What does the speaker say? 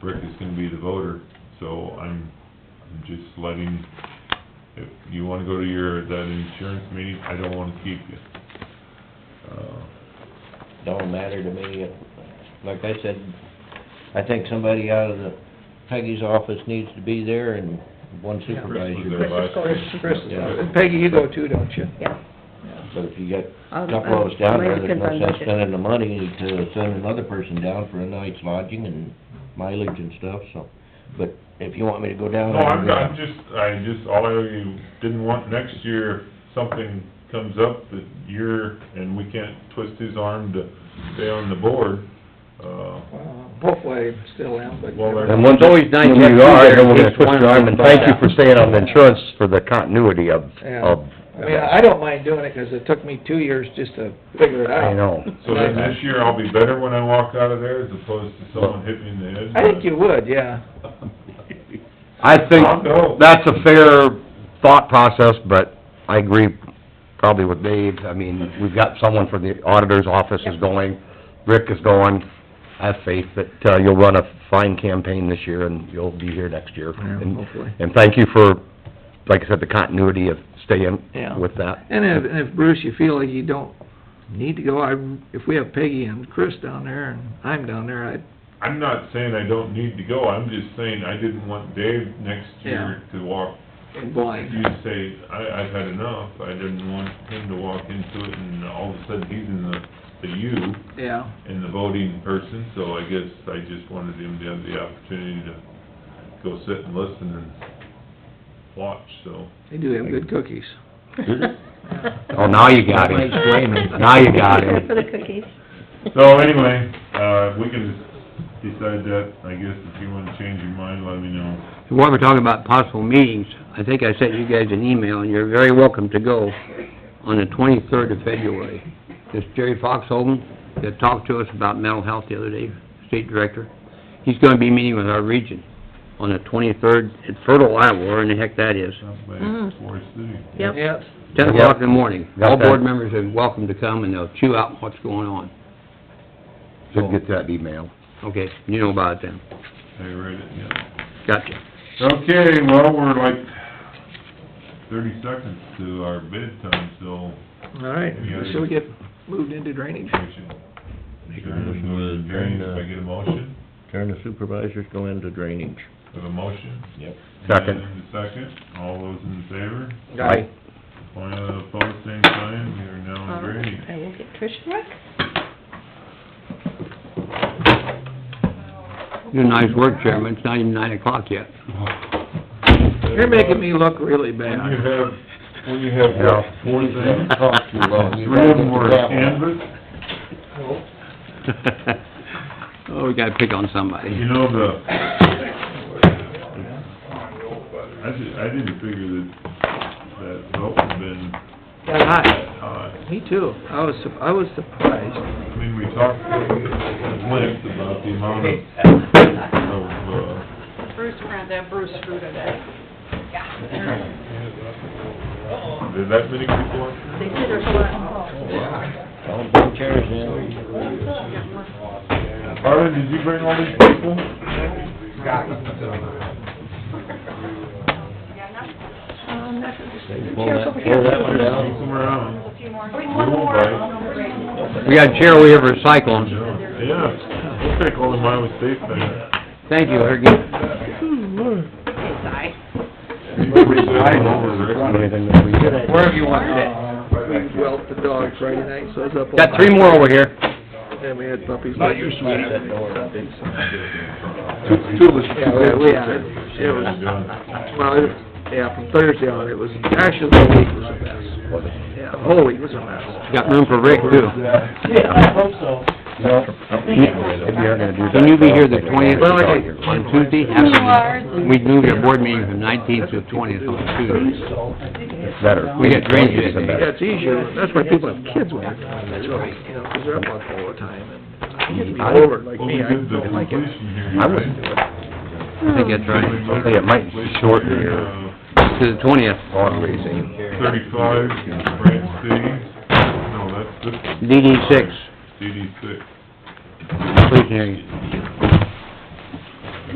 Rick is gonna be the voter, so I'm, I'm just letting, if you wanna go to your, that insurance meeting, I don't wanna keep you. Uh, Don't matter to me, like I said, I think somebody out of the Peggy's office needs to be there and one Yeah. Chris was supervisor. there last Chris year. Chris, Yeah. Peggy, you go too, don't you? Yeah. But if you get a I'll- couple of us down there, there's I'll- no I'll make a sense spending the money to send another person down for a night's lodging and mileage and stuff, so. But if you want me to go down. No, I'm, I'll go. I'm just, I just, all I didn't want next year, something comes up that you're, and we can't twist his arm to stay on the board, uh, Well, Hopefully, I still am, but. Well, there- And once, It's always nice when to have you two are, there, no one's in gonna case twist one your arm, and falls thank you out. for staying on the insurance for the continuity of, Yeah. of, I mean, I don't mind doing it, 'cause it took me two years just to figure it out. I know. so then this year I'll be better when I walk out of there as opposed to someone hitting me in the head. I think you would, yeah. I think I'll go. that's a fair thought process, but I agree probably with Dave. I mean, we've got someone from the auditor's office is going, Rick is going. I have faith that, uh, you'll run a fine campaign this year and you'll be here next year. Yeah, And- hopefully. And thank you for, like I said, the continuity of staying Yeah. with that. And if, and if Bruce, you feel like you don't need to go, I, if we have Peggy and Chris down there and I'm down there, I'd, I'm not saying I don't need to go, I'm just saying I didn't want Dave next year to walk, I'm if blind. you say, I, I've had enough, I didn't want him to walk into it and all of a sudden he's in the, the U. Yeah, and the voting person, so I guess I just wanted him to have the opportunity to go sit and listen and watch, so. they do have good cookies. Oh, now you got him. Nice blaming. Now you got him. For the cookies. So anyway, uh, we can decide that, I guess, if you wanna change your mind, let me know. While we're talking about possible meetings, I think I sent you guys an email, and you're very welcome to go on the twenty-third of February. This Jerry Foxholm that talked to us about mental health the other day, state director, he's gonna be meeting with our region on the twenty-third at Fertile, Iowa, where in the heck that is, Not Mm. bad, Forest City. Yep. Yes. ten o'clock in the morning. Got All that. board members are welcome to come, and they'll chew out what's going on. Should get that email. Okay, you know about it then. I read it, yeah. Gotcha. Okay, well, we're like thirty seconds to our bid time, so All right, Yeah. so we get moved into drainage. we should. Make a motion to Turn, adjourn, if I uh, get a motion, Turn the supervisors, go into drainage. have a motion? Yep. Second. And a second, all those in favor? Aye. Point of the post, same sign, we are now in All right, drainage. Um, I will get Trish Rex. You nice work, Chairman. It's not even nine o'clock yet. You're making me look really When bad. you have, when you have what, Yeah. four things, Talk too long. three of them were canvas, Oh, we gotta pick on somebody. you know, the... I di- I didn't figure that, that vote had been Got hot. that high. Me too. I was, su- I was surprised. I mean, we talked at length about the amount of, of, uh, Bruce, we're gonna have Bruce screw today. did that many people answer? They said there's a lot. Don't bring chairs in. Harlan, did you bring all these people? Um, that's what- Pull Chairs that- over here. Pull that one down. Come around. Bring one more. We got a chair we have recycling. Yeah, we'll take all the Iowa State things. Thank you, Hergie. Oh, Anything that we get. Wherever you want that. We whelped the dog Friday night, so I was up all night. Got three more over here. And we had puppies. Not your sweet. Two of us. Yeah, we, we had, it It was, well, it- yeah, from Thursday on, it was, actually, the whole week was a mess. Yeah, the whole week was a mess. Got room for Rick too. No. If you're gonna do that. Can you be here the twentieth? Well, I think- On Tuesday? You are. We moved our board meeting from nineteenth to twentieth on Tuesday. It's better. We got drainage that day. Yeah, it's easier, that's why people have kids when they're gone, that's why, you know, 'cause they're up all the time, and kids be over like Well, we me, I did the don't like it. completion here, I right? wouldn't do it. I think that's right. I think it might shorten your- To the twentieth. Dog racing. Thirty-five, Branch City, no, that's this one, DD six, DD six. completion hearing.